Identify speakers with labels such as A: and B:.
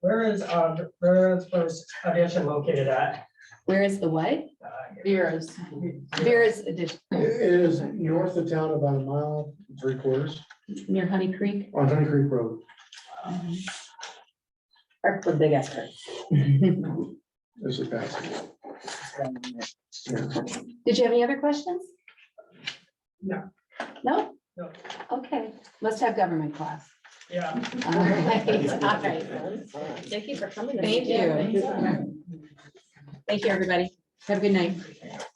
A: Where is, uh, where is first addition located at? Uh,
B: Where is the what?
C: Vera's.
B: Vera's addition,
D: It is north of town about a mile, three quarters,
B: near Honey Creek.
D: on Honey Creek Road.
E: Or the big effort.
D: There's a passage.
B: Did you have any other questions?
A: No.
B: No?
A: No.
B: Okay, must have government class.
A: Yeah.
B: All right, all right.
E: Thank you for coming.
B: Thank you.
E: Thank you, everybody.
B: Have a good night.